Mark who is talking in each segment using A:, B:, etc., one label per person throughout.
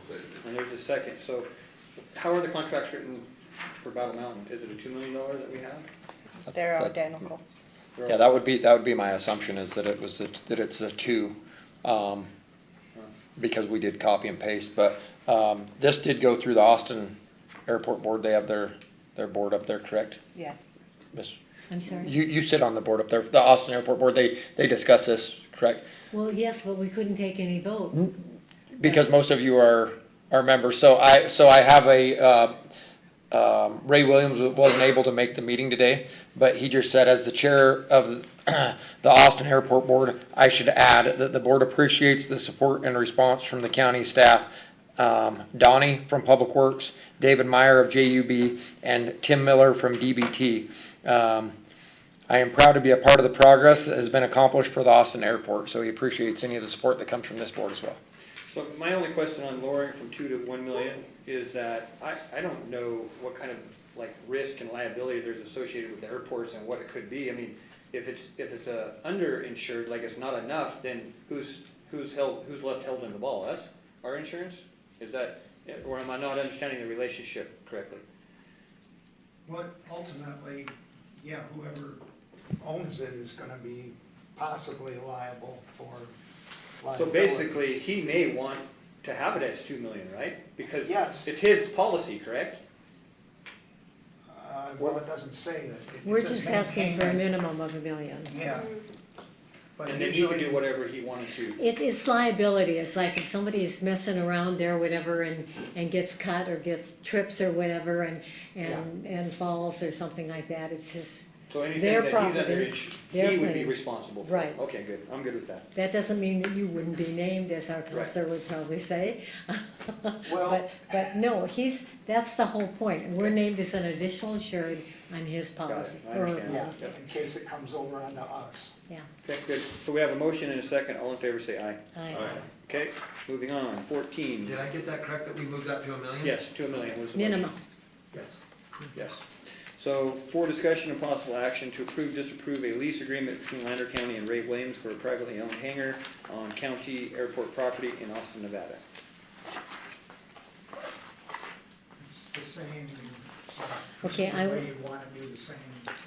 A: decision.
B: And there's a second, so how are the contracts written for Battle Mountain? Is it a two million dollar that we have?
C: They're
D: That-
C: identical.
B: They're
D: Yeah, that would be, that would be my assumption is that it was, the- that it's a two, um, because we did copy and paste, but, um, this did go through the Austin Airport Board, they have their, their board up there, correct?
C: Yes.
D: Miss,
E: I'm sorry.
D: you, you sit on the board up there, the Austin Airport Board, they, they discuss this, correct?
E: Well, yes, but we couldn't take any
B: Hmm?
E: vote.
D: Because most of you are, are members, so I, so I have a, uh, um, Ray Williams wasn't able to make the meeting today, but he just said, as the chair of the Austin Airport Board, I should add that the board appreciates the support and response from the county staff. Um, Donnie from Public Works, David Meyer of JUB, and Tim Miller from DBT. Um, I am proud to be a part of the progress that has been accomplished for the Austin Airport, so he appreciates any of the support that comes from this board as well.
B: So my only question on lowering from two to one million is that I, I don't know what kind of like risk and liability there's associated with airports and what it could be. I mean, if it's, if it's a underinsured, like it's not enough, then who's, who's held, who's left held in the ball? Us? Our insurance? Is that, or am I not understanding the relationship correctly?
F: But ultimately, yeah, whoever owns it is gonna be possibly liable for
B: So
F: liability.
B: basically, he may want to have it as two million, right? Because
F: Yes.
B: it's his policy, correct?
F: Uh, well, it doesn't say that. It
E: We're
F: says
E: just asking for a
F: maintain
E: minimum of a million.
F: it. Yeah. But
B: And then he could
F: usually-
B: do whatever he wanted to.
E: It, it's liability. It's like if somebody's messing around there, whatever, and, and gets cut or gets trips or whatever, and, and, and falls or something like that, it's his,
B: So anything
E: Their
B: that he's
E: property,
B: under, ins-
E: their
B: he would be
E: claim.
B: responsible for.
E: Right.
B: Okay, good, I'm good with that.
E: that doesn't mean that you wouldn't be named, as our counselor would probably say.
F: Well-
E: But, but no, he's, that's the whole point. We're named as an additional insured on his policy.
B: I
E: or
B: understand.
F: Yeah,
E: policy.
F: in case it comes over onto us.
E: Yeah,
B: Okay, good, so we have a motion and a second, all in favor say aye.
E: I,
B: Okay, moving on, fourteen,
G: Did I get that correct, that we moved that to a million?
B: yes, two million was the motion.
E: minimum.
G: Yes.
B: Yes. So for discussion and possible action to approve, disapprove a lease agreement between Lander County and Ray Williams for a privately owned hangar on county airport property in Austin, Nevada.
F: It's the same. so
E: Okay, I
F: presumably
E: will-
F: You wanna do the same. eight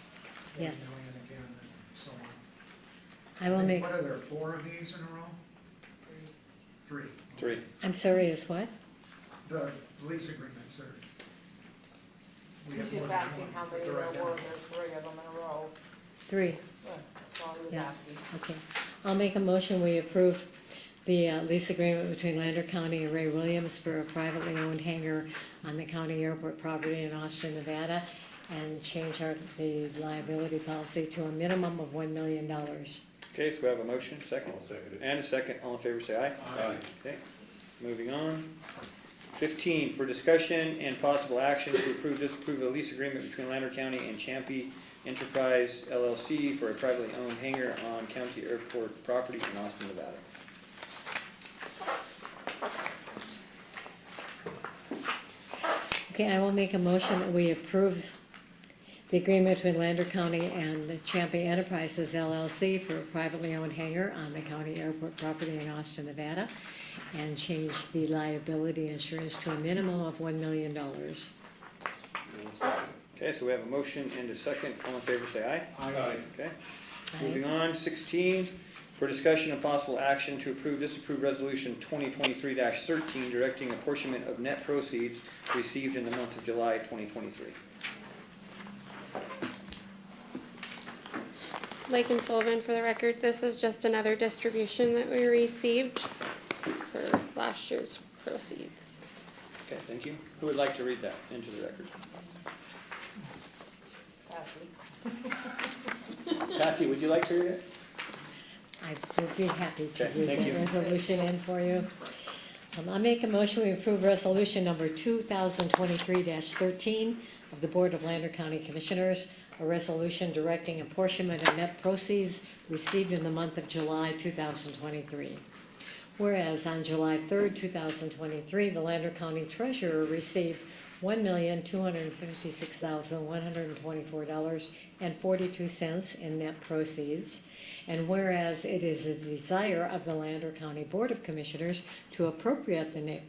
E: Yes.
F: million again and so on.
E: I will make,
F: What are there, four of these in a row? Three.
B: Three.
E: I'm sorry, is what?
F: The lease agreements are. we have
H: She's
F: more than
H: asking
F: one,
H: how
F: but
H: many there
F: they're
H: were,
F: identical.
H: there's three of them in a row,
E: Three.
H: Yeah, that's all he was
E: Yeah.
H: asking.
E: Okay, I'll make a motion, we approve the uh, lease agreement between Lander County and Ray Williams for a privately owned hangar on the county airport property in Austin, Nevada, and change our, the liability policy to a minimum of one million dollars.
B: Okay, so we have a motion, 2nd And a second, all in favor say aye.
F: Aye.
B: Okay, moving on. Fifteen, for discussion and possible action to approve, disapprove a lease agreement between Lander County and Champy Enterprise LLC for a privately owned hangar on county airport property in Austin, Nevada.
E: Okay, I will make a motion that we approve the agreement between Lander County and the Champion Enterprises LLC for a privately owned hangar on the county airport property in Austin, Nevada, and change the liability insurance to a minimum of one million dollars.
B: Okay, so we have a motion and a second, all in favor say aye.
A: Aye.
B: Okay, moving on, sixteen, for discussion of possible action to approve, disapprove resolution twenty twenty-three thirteen, directing apportionment of net proceeds received in the month of July twenty twenty-three.
I: Lake and Sullivan, for the record, this is just another distribution that we received for last year's proceeds.
B: Okay, thank you. Who would like to read that into the record?
H: Ashley.
B: Cassie, would you like to read it?
E: I would be happy to
B: Okay,
E: read
B: thank
E: that
B: you.
E: resolution in for you. Um, I make a motion, we approve resolution number two thousand twenty-three thirteen of the Board of Lander County Commissioners, a resolution directing apportionment of net proceeds received in the month of July two thousand twenty-three. Whereas on July third, two thousand twenty-three, the Lander County Treasurer received one million, two hundred and fifty-six thousand, one hundred and twenty-four dollars and forty-two cents in net proceeds. And whereas it is the desire of the Lander County Board of Commissioners to appropriate the net